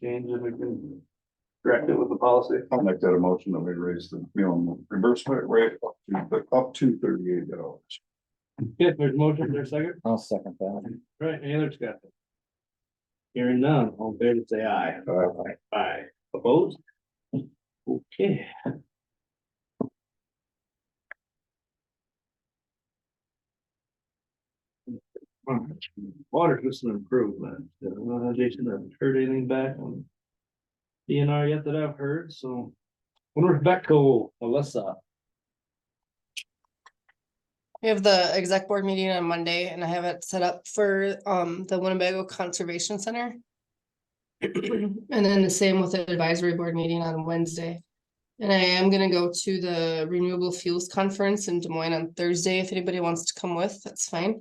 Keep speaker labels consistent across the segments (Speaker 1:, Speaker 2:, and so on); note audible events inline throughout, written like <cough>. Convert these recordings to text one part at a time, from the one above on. Speaker 1: change and we can correct it with the policy.
Speaker 2: I'll make that a motion that we raise the minimum reimbursement rate up to, up to thirty-eight dollars.
Speaker 1: Okay, there's motion, there's second,
Speaker 3: I'll second that.
Speaker 1: right, any other discussion? Hearing none, all in favor, say aye. Aye. Opposed? Okay. Water system improvement, Uh, Jason, I haven't heard anything back on DNR yet that I've heard, so. Wonder if Becko, Alyssa,
Speaker 4: We have the exec board meeting on Monday and I have it set up for um the Winnebago Conservation Center. And then the same with the advisory board meeting on Wednesday. And I am gonna go to the Renewable Fuels Conference in Des Moines on Thursday. If anybody wants to come with, that's fine.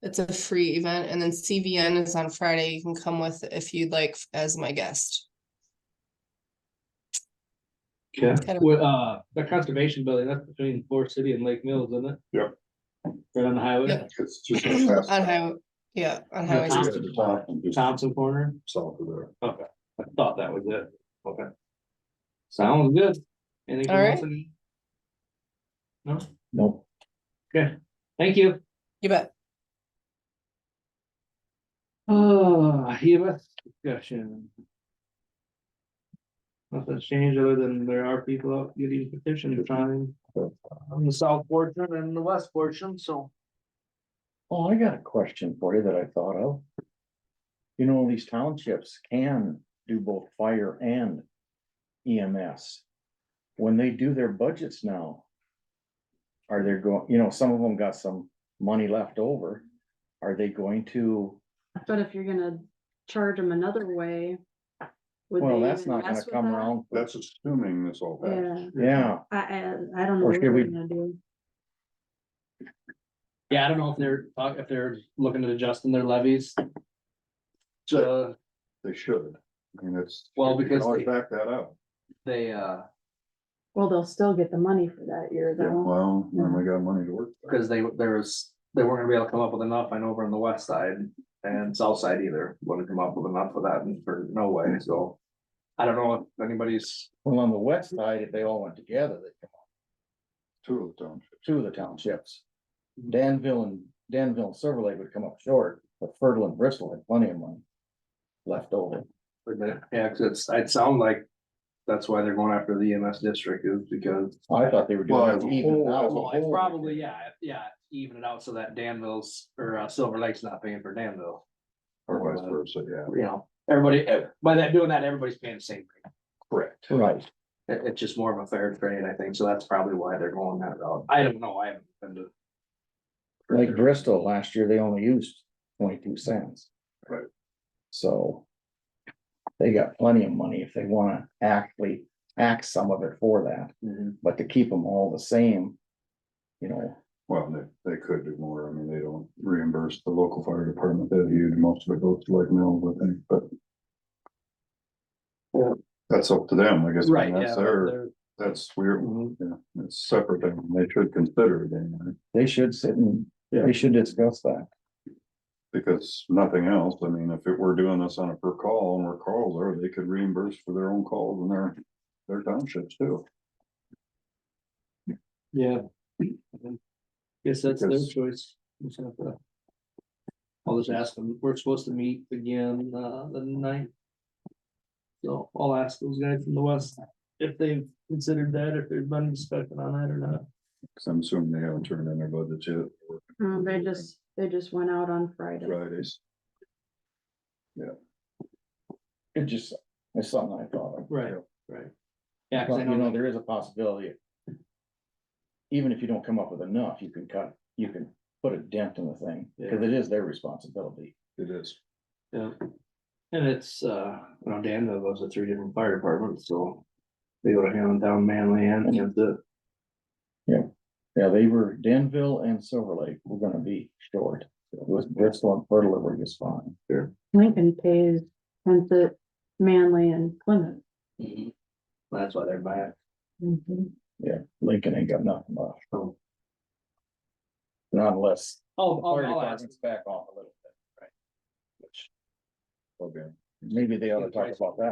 Speaker 4: It's a free event and then CVN is on Friday. You can come with if you'd like as my guest.
Speaker 1: yeah,
Speaker 4: Kind of-
Speaker 1: with, uh, the conservation building, that's between Forest City and Lake Mills, isn't it?
Speaker 2: Yep.
Speaker 1: Right on the highway,
Speaker 4: Yep.
Speaker 2: It's
Speaker 5: <clears throat>
Speaker 2: just.
Speaker 4: On highway, yeah, on highway.
Speaker 1: Thompson.
Speaker 2: the top and just
Speaker 1: Thompson Corner,
Speaker 2: South of there.
Speaker 1: I thought that was it, okay. Sounds good. Anything
Speaker 4: All
Speaker 1: else? in- No,
Speaker 3: Nope.
Speaker 1: thank you.
Speaker 4: You bet.
Speaker 1: Uh, EMS discussion. Nothing's changed other than there are people out getting petitions trying on the south portion and the west portion, so.
Speaker 3: Oh, I got a question for you that I thought of. You know, these townships can do both fire and EMS. When they do their budgets now. Are they going, you know, some of them got some money left over. Are they going to,
Speaker 5: But if you're gonna charge them another way. would
Speaker 3: well,
Speaker 5: they
Speaker 3: that's
Speaker 5: even
Speaker 3: not gonna
Speaker 5: mess with
Speaker 3: come
Speaker 5: that?
Speaker 3: around. for-
Speaker 2: That's assuming this all passes.
Speaker 5: Yeah,
Speaker 3: Yeah,
Speaker 5: I, I, I don't know
Speaker 3: Or
Speaker 5: what
Speaker 3: should
Speaker 5: we're
Speaker 3: we-
Speaker 5: gonna do.
Speaker 1: Yeah, I don't know if they're, uh, if they're looking at adjusting their levies. Uh, So
Speaker 2: They should. I mean, it's.
Speaker 1: Well,
Speaker 2: you can
Speaker 1: because
Speaker 2: Always
Speaker 1: they-
Speaker 2: back that up.
Speaker 1: they, uh,
Speaker 5: Well, they'll still get the money for that year though.
Speaker 2: Well, then we got money to work. with.
Speaker 1: cause they, there was, they weren't gonna be able to come up with enough, I know over on the west side and south side either, wouldn't come up with enough for that, and for no way, so. I don't know if anybody's
Speaker 3: well, on the west side, if they all went together, they come up
Speaker 2: Two of them.
Speaker 3: two of the townships. Danville and Danville and Silver Lake would come up short, but Fertile and Bristol had plenty of money. Left over.
Speaker 1: Wait a minute. Yeah, 'cause it's, it sound like that's why they're going after the EMS district is because.
Speaker 3: I thought they were
Speaker 2: Well,
Speaker 3: doing
Speaker 2: as
Speaker 3: it
Speaker 2: a
Speaker 3: even
Speaker 2: whole-
Speaker 3: now.
Speaker 2: as a
Speaker 1: Well, it's
Speaker 2: whole.
Speaker 1: probably, yeah, yeah, even it out so that Danville's or uh, Silver Lake's not paying for Danville.
Speaker 2: Or
Speaker 1: uh,
Speaker 2: vice versa, yeah.
Speaker 1: You know, everybody, eh, by that doing that, everybody's paying the same rate.
Speaker 2: Correct.
Speaker 3: Right,
Speaker 1: It- it's just more of a fair trade, I think, so that's probably why they're going that route. I don't know, I haven't been to.
Speaker 3: like Bristol, last year they only used twenty-two cents.
Speaker 2: Right.
Speaker 3: So. They got plenty of money if they wanna actually act some of it for that,
Speaker 1: Mhm.
Speaker 3: but to keep them all the same. You know,
Speaker 2: Well, they, they could do more. I mean, they don't reimburse the local fire department that huge. Most of it goes to Lake Mills, I think, but.
Speaker 1: Yeah.
Speaker 2: That's up to them, I guess.
Speaker 1: Right, yeah.
Speaker 2: That's
Speaker 1: but
Speaker 2: their,
Speaker 1: they're-
Speaker 2: that's weird.
Speaker 1: Mhm.
Speaker 2: Yeah, it's separate. I mean, They should consider it anyway,
Speaker 3: they should sit and,
Speaker 2: Yeah.
Speaker 3: they should discuss that.
Speaker 2: because nothing else. I mean, if it were doing this on a per call and we're calls there, they could reimburse for their own calls and their, their townships too.
Speaker 1: Yeah. Guess that's their
Speaker 2: Because-
Speaker 1: choice. It's not the- I'll just ask them, we're supposed to meet again, uh, the ninth. So I'll ask those guys from the west if they've considered that, if there's been discussion on that or not.
Speaker 2: Cause I'm assuming they haven't turned in their budget yet. or
Speaker 3: mm-hmm.
Speaker 5: Mm, They just, they just went out on Friday.
Speaker 2: Fridays.
Speaker 3: It just, it's something I thought of.
Speaker 1: Right, right. Yeah, cause I
Speaker 3: But you
Speaker 1: know
Speaker 3: know,
Speaker 1: that,
Speaker 3: there is a possibility. Even if you don't come up with enough, you can cut, you can put a dent in the thing, because it is their responsibility.
Speaker 2: It is.
Speaker 1: and it's, uh, you know, Dan knows the three different fire departments, so. They go to hand down Manly and, and the,
Speaker 3: Yeah, they were Denville and Silver Lake, we're gonna be short. With Bristol and Fertile, we're just fine.
Speaker 5: Lincoln pays, sends it Manly and Plymouth.
Speaker 1: Mm-hmm. that's why they're buying.
Speaker 3: Lincoln ain't got nothing left.
Speaker 1: Oh.
Speaker 3: Not unless.
Speaker 1: Oh,
Speaker 3: the fire department's Back off a little bit.
Speaker 2: Okay.
Speaker 3: maybe they ought to talk about that.